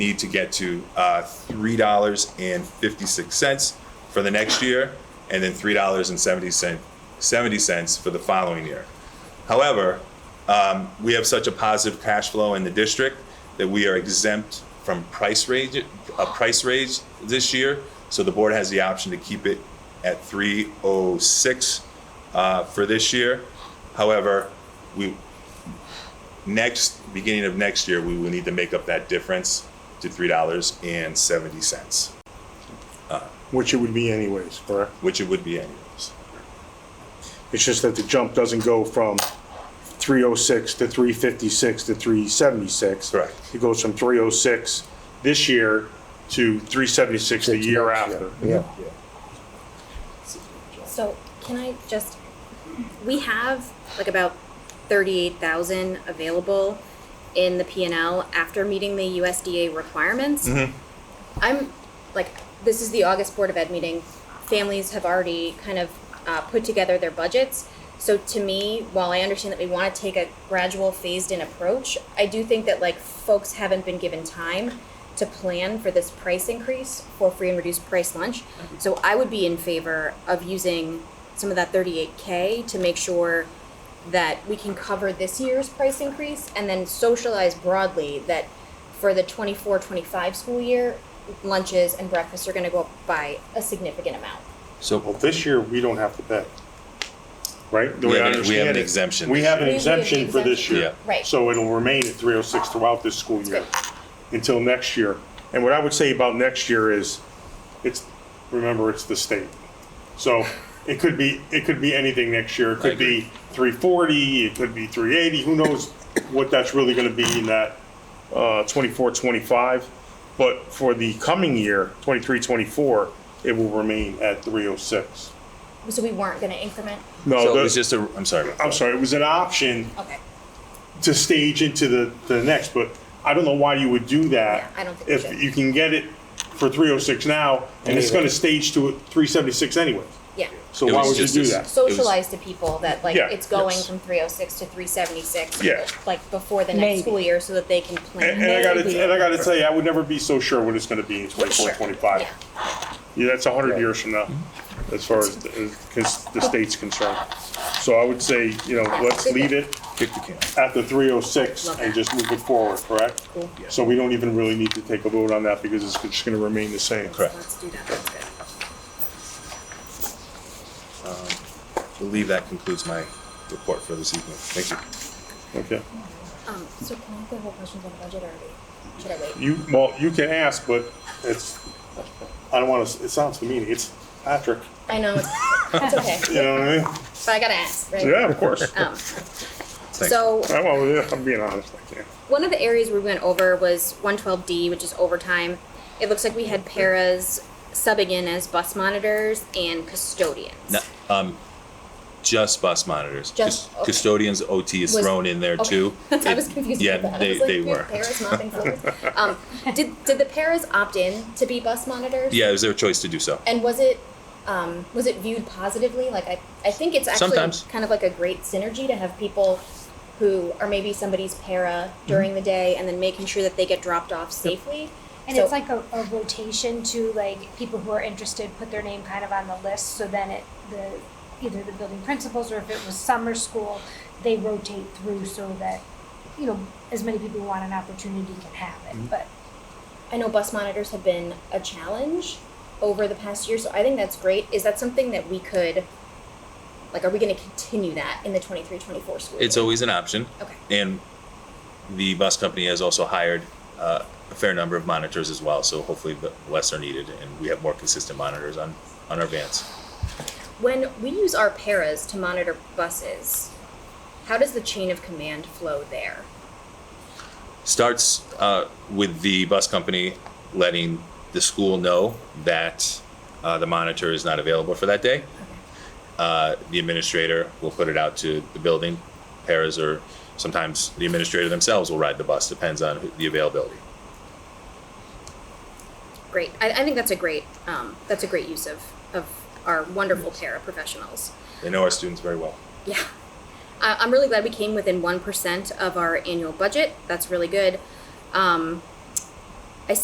need to get to uh, $3.56 for the next year, and then $3.70 $0.70 for the following year. However, um, we have such a positive cash flow in the district that we are exempt from price raise, a price raise this year. So the board has the option to keep it at 306 uh, for this year. However, we, next, beginning of next year, we will need to make up that difference to $3.70, Which it would be anyways, correct? which it would be anyways. It's just that the jump doesn't go from 306 to 356 to 376. Correct. It goes from 306 this year to 376 the year after. Yeah, So can I just, we have like about thirty-eight thousand available in the P and L after meeting the USDA requirements. I'm, like, this is the August Board of Ed meeting, families have already kind of, uh, put together their budgets. So to me, while I understand that we wanna take a gradual phased-in approach, I do think that like folks haven't been given time to plan for this price increase for free and reduced price lunch. So I would be in favor of using some of that thirty-eight K to make sure that we can cover this year's price increase and then socialize broadly that for the 24 25 school year, lunches and breakfasts are going to go up by a significant amount. Well, so, this year, we don't have to pay, right? The We way I have an- we understand have an it, exemption We this have an year. We- we have an exemption for this exemption. year. Yeah. Right. So it'll remain at 306 throughout this school year until next year. And what I would say about next year is, it's, remember, it's the state. So it could be, it could be anything next year. It could be 340, it could be 380, who knows what that's really going to be in that uh, 24, 25. But for the coming year, 23, 24, it will remain at 306. So we weren't going to increment. No, So it was the- just a, I'm sorry. I'm sorry, it was an option Okay. to stage into the, the next, but I don't know why you would do that. Yeah, I don't think we should. If you can get it for three oh six now, and it's gonna stage to three seventy-six anyway. Yeah. So It why was would you just do a- that? Socialize to people that like Yeah, it's going yes. from 306 to 376 Yeah. like before the next Maybe. school year so that they can plan. And, and I Maybe. gotta, and I gotta tell you, I would never be so sure what it's gonna be in twenty-four, Sure. twenty-five. Yeah. Yeah, that's a hundred years from now, as far as, the- as cons- the state's concerned. So I would say, you know, let's leave it Kick the can. at the three oh six Love and that. just move it forward, correct? Cool. Yeah. So we don't even really need to take a vote on that because it's just gonna remain the same. Correct. Let's do that. That's good. I believe that concludes my report for this evening. Thank you. Okay. Um, so can I have more questions on the budget already? Should I wait? You, well, you can ask, but it's, I don't wanna, it sounds demeaning, it's Patrick, I know it's, it's okay, you know what I mean? but I gotta ask, right? Yeah, of course. Um, Thank you. so I, well, yeah, I'm being honest, I can't. one of the areas we went over was 112D, which is overtime. It looks like we had paras subbing in as bus monitors and custodians. No, um, just bus monitors. Just- Cus- Custodians OT is Was- thrown in there too. I was It- confused. Yeah, about that. I they, was like, they we were. have Paras mopping floors. um, did did the paras opt in to be bus monitors? Yeah, it was their choice to do so. And was it um, was it viewed positively? Like I, I think it's actually Sometimes. kind of like a great synergy to have people who are maybe somebody's para during Mm-hmm. the day and then making sure that they get dropped off safely. and So- it's like a, a rotation to like people who are interested put their name kind of on the list, so then it, the, either the building principals or if it was summer school, they rotate through so that, you know, as many people who want an opportunity can have it, but I know bus monitors have been a challenge over the past year, so I think that's great. Is that something that we could, like, are we going to continue that in the 23 24 school? It's year? always an option. Okay. And the bus company has also hired uh, a fair number of monitors as well. So hopefully the less are needed and we have more consistent monitors on, on our vans. When we use our paras to monitor buses, how does the chain of command flow there? starts uh, with the bus company letting the school know that uh, the monitor is not available for that day. Uh, the administrator will put it out to the building. Paras or sometimes the administrator themselves will ride the bus, depends on who- the availability. great. I, I think that's a great um, that's a great use of of our wonderful para professionals. They know our students very well. Yeah, I, I'm really glad we came within one percent of our annual budget. That's really good. Um,